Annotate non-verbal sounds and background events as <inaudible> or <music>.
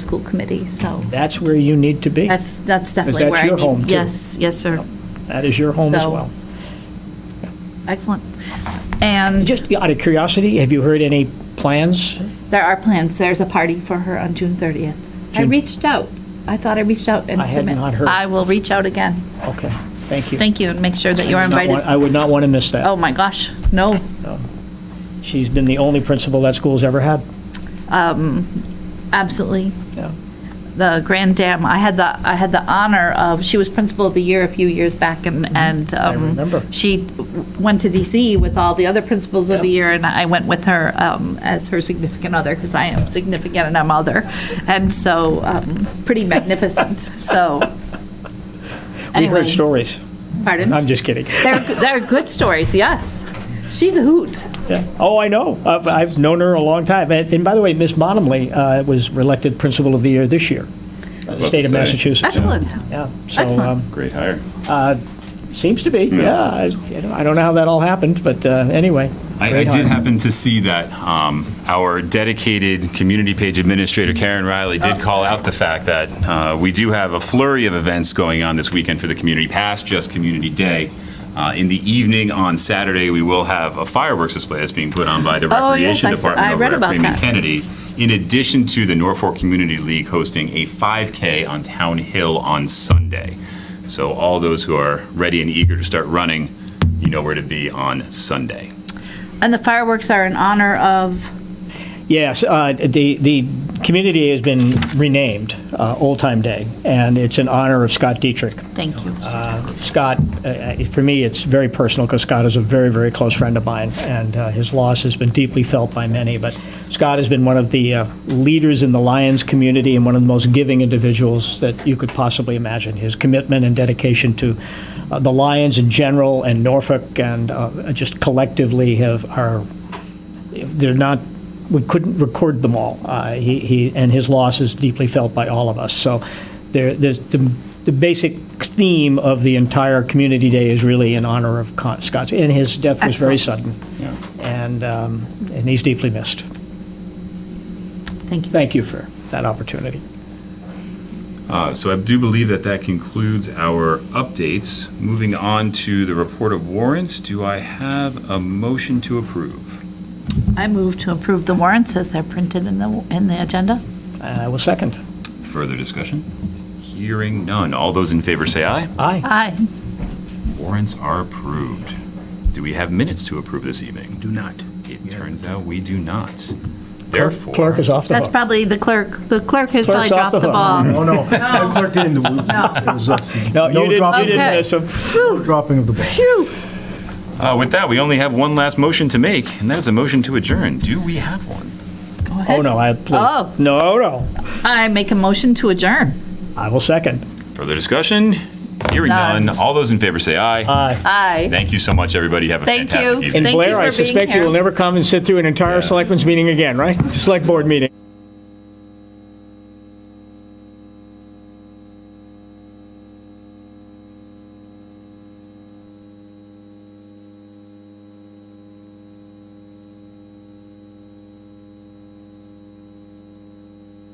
school committee, so. That's where you need to be. That's, that's definitely that's where I need. your home, too. Yes, yes, sir. That is your home as So- well. Excellent. And Just out of curiosity, have you heard any plans? there are plans. There's a party for her on June 30th. I June- reached out. I thought I reached out and. I had not heard. I will reach out again. Okay, thank you. Thank you, and make sure that you are Not want- invited. I would not want to miss that. Oh, my gosh, no. She's been the only principal that school's ever had. Absolutely. Yeah. The Grand Dam, I had the, I had the honor of, she was principal of the year a few years back and, and. I Mm-hmm. remember. She went to DC with all the other principals of the year and I went with her um, as her significant other because I am significant and I'm other. And so um, it's pretty <laughs> magnificent, so. We've Anyway, heard stories. Pardon? I'm just kidding. They're, they're good stories, yes. She's a hoot. Yeah. Oh, I know. Uh, I've known her a long time. And and by the way, Miss Bottomley uh, was elected Principal of the Year this year, the about state to of say. Massachusetts. Excellent. Yeah. So, Excellent. um, Great hire. Seems to be, yeah. I you know, I don't know how that all happened, but uh, anyway. I, I great did hire. happen to see that um, our dedicated community page administrator, Karen Riley, Oh. did call out the fact that uh, we do have a flurry of events going on this weekend for the community, past just Community Day. Uh, in the evening on Saturday, we will have a fireworks display that's being put on by the Oh, yes, Recreation I s- Department I over read at about Freeman that. Kennedy, in addition to the Norfolk Community League hosting a 5K on Town Hill on Sunday. So all those who are ready and eager to start running, you know where to be on Sunday. And the fireworks are in honor of, Yes, uh, the, the community has been renamed uh, Old Time Day, and it's in honor of Scott Dietrich. thank you. Scott, uh, uh, for me, it's very personal because Scott is a very, very close friend of mine, and uh, his loss has been deeply felt by many. But Scott has been one of the uh, leaders in the Lions community and one of the most giving individuals that you could possibly imagine. His commitment and dedication to uh, the Lions in general and Norfolk and uh, just collectively have are they're not, we couldn't record them all. Uh, he, he, and his loss is deeply felt by all of us. So there, there's the, the basic theme of the entire Community Day is really in honor of Con- Scott. And his death was very sudden. Yeah. And, um, and he's deeply missed. Thank you. Thank you for that opportunity. Uh, So I do believe that that concludes our updates. Moving on to the report of warrants, do I have a motion to approve? I move to approve the warrants as they're printed in the, in the agenda. And I will second. Further discussion? Hearing none. All those in favor say aye. Aye. Aye. Warrants are approved. Do we have minutes to approve this evening? Do not. It turns out we do not. Therefore. Clerk is off the That's hook. probably the clerk, the clerk has probably Clerk's off dropped the the ball. Oh, <laughs> no. The clerk didn't. do it. It was us. No, you didn't, you dropping, didn't Okay. miss him. no dropping of the ball. Uh, With that, we only have one last motion to make, and that is a motion to adjourn. Do we have one? Go ahead. Oh, no, I, please. Oh. No, no. I make a motion to adjourn. I will second. Further discussion? Hearing None. none. All those in favor say aye. Aye. Aye. Thank you so much, everybody. Have a Thank fantastic you. evening. And Thank you Blair, for I being suspect you here. will never come and sit through an entire selectmen's meeting again, right? <laughs> Select board meeting.